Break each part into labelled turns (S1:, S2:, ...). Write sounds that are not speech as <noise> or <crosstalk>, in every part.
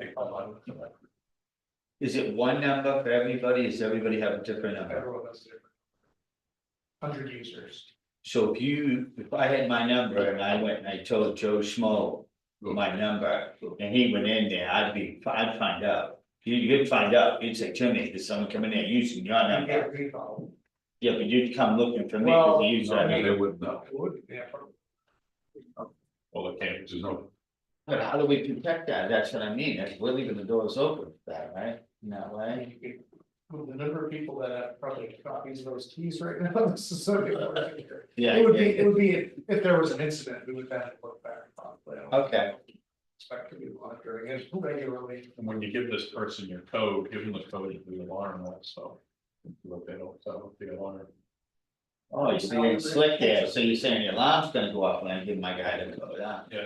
S1: Pick one.
S2: Is it one number for everybody? Does everybody have a different number?
S1: Everyone has different. Hundred users.
S2: So if you, if I had my number and I went and I told Joe Schmo my number, and he went in there, I'd be, I'd find out. You, you'd find out, you'd say, Jimmy, there's someone coming in using your
S1: You
S2: number.
S1: get recall.
S2: Yeah, but you'd come looking for me because you use that.
S3: No,
S2: number.
S3: They wouldn't know,
S1: It would be, yeah, for-
S3: well, they can't, there's no,
S2: But how do we protect that? That's what I mean. That's, we're leaving the doors open for that, right? In that
S1: I
S2: way.
S1: mean, you could- With the number of people that have probably copies of those keys right now, <laughs> this is so. It
S2: Yeah.
S1: would be,
S2: yeah.
S1: it would be, if- if there was an incident, we would have to look back. probably. I don't
S2: Okay.
S1: Expect to be monitoring it regularly.
S3: and when you give this person your code, give them the code to the alarm also. But they don't, so the alarm,
S2: Oh, you're being slick there. So you're saying your alarm's gonna go off when I give my guy the code, huh?
S3: yeah.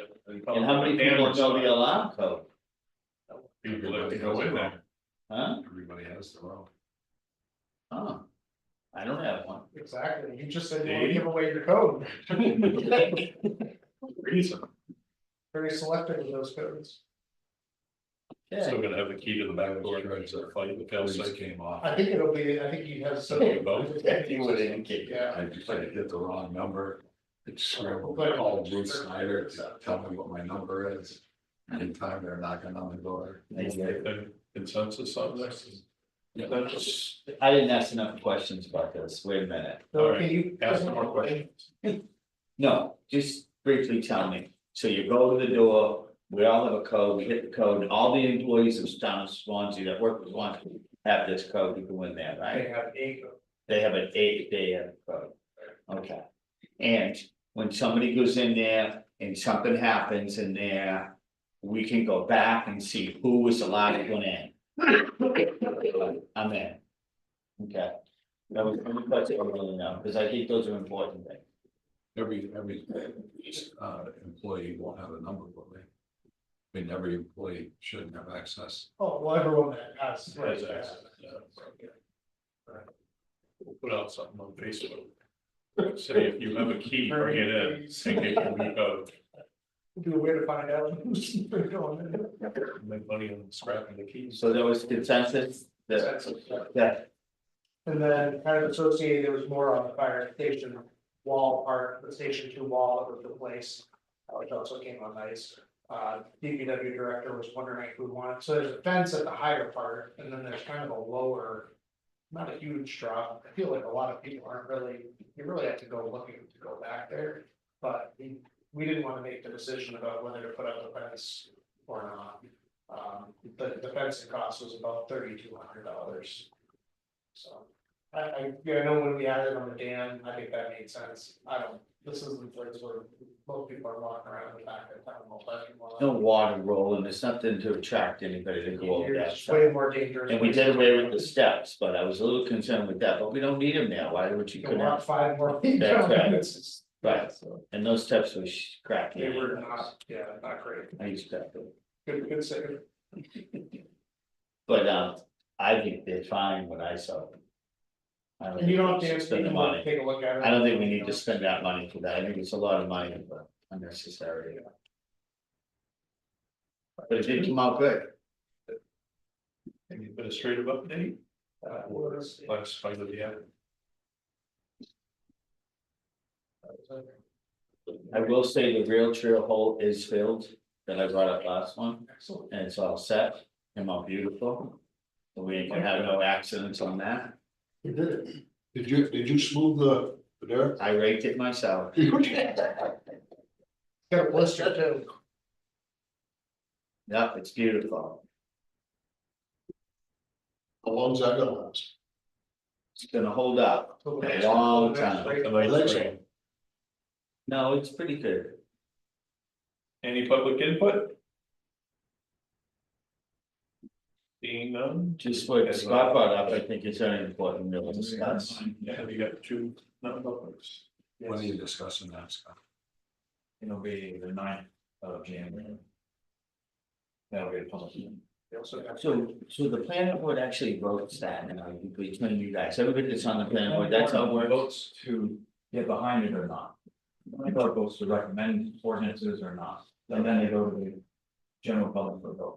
S2: And how many people know the alarm code,
S3: People that go in there,
S2: huh?
S3: everybody has their own.
S2: Oh. I don't have one.
S1: Exactly, you just said you want to give away your code,
S3: Reason,
S1: very selective with those codes.
S2: Yeah,
S3: still gonna have the key to the back door, right, so fight, the fail safe came off.
S1: I think it'll be, I think he has some.
S3: You both?
S2: You would indicate.
S1: Yeah.
S4: I just like hit the wrong number. It's
S1: We'll
S4: scrambled,
S1: put it-
S4: called Bruce Snyder to tell me what my number is. Anytime they're knocking on the door.
S2: Thank you.
S3: Then Consensus on this? Yeah, that's,
S2: I didn't ask enough questions about this. Wait a minute.
S1: So can you?
S3: ask more questions.
S2: No, just briefly tell me. So you go to the door, we all have a code, we hit the code, all the employees of town of Swansea that work with Swansea have this code, you go in there, right?
S1: They have eight,
S2: They have an eight day of code. Okay. And when somebody goes in there and something happens in there, we can go back and see who was the last one in. I'm in. Okay. That was, that's what I really know, because I think those are important things.
S4: Every, every, uh, employee won't have a number, will they? I mean, every employee shouldn't have access.
S1: oh, well, everyone that has.
S3: Has access, yeah. We'll put out something on Facebook. Say if you have a key, bring it in, and get your new code,
S1: Do a way to find out who's <laughs> going in.
S3: make money on scrapping the keys.
S2: So there was consensus that, that,
S1: And then kind of associated, there was more on the fire station wall part, the station two wall that was replaced, uh, which also came on ice. Uh, DPW director was wondering if we want, so there's a fence at the higher part, and then there's kind of a lower. Not a huge drop, I feel like a lot of people aren't really, you really have to go looking to go back there, but we, we didn't wanna make the decision about whether to put up the fence or not. Um, the, the fencing cost was about thirty-two hundred dollars. So, I, I, yeah, I know when we added on the dam, I think that made sense, I don't, this is the place where most people are walking around in the back of town, all that.
S2: no water rolling, there's nothing to attract anybody to go over that.
S1: It's
S2: stuff.
S1: way more dangerous.
S2: And we did away with the steps, but I was a little concerned with that, but we don't need them now, why would you
S1: You
S2: go
S1: can
S2: down?
S1: walk five more feet
S2: That's
S1: down,
S2: right.
S1: it's just-
S2: Right.
S1: so
S2: And those steps were sh- crappy.
S1: They were not, yeah, not great,
S2: I used to, have them.
S1: good, good save.
S2: but um, I think they're fine when I saw them. I don't
S1: And you don't have
S2: think
S1: to,
S2: we should
S1: you
S2: Spend the
S1: can look-
S2: money,
S1: take a look at it.
S2: I don't think we need to spend that money for that, I think it's a lot of money, but unnecessary. But it did come out good.
S3: Any Administrative update,
S1: Uh, was-
S3: last fight of the year.
S2: I will say the rail trail hole is filled, that I brought up last one,
S1: Excellent,
S2: and it's all set, came out beautiful. So We ain't gonna have no accidents on that,
S1: you did it.
S4: Did you, did you smooth the, the dirt?
S2: I raked it myself.
S1: Got a blister too.
S2: Yep, it's beautiful,
S4: How long's that gonna last?
S2: it's gonna hold up,
S1: Till the
S2: A
S1: next-
S2: long
S1: till the next
S2: time.
S1: break.
S3: Election.
S2: no, it's pretty good.
S3: Any public input? Seeing none?
S2: Just what Scott brought up, I think it's very important to discuss.
S3: Yeah, we got two non-publics.
S4: When are you discussing that, Scott?
S5: It'll be the ninth of January. That'll be a public hearing.
S1: They also got-
S2: So, so the planning board actually votes that, and I, between you guys, everybody that's on the planning board, that's how it works.
S5: Votes to get behind it or not. My vote votes to recommend ordinances or not, and then they go to the general public for vote.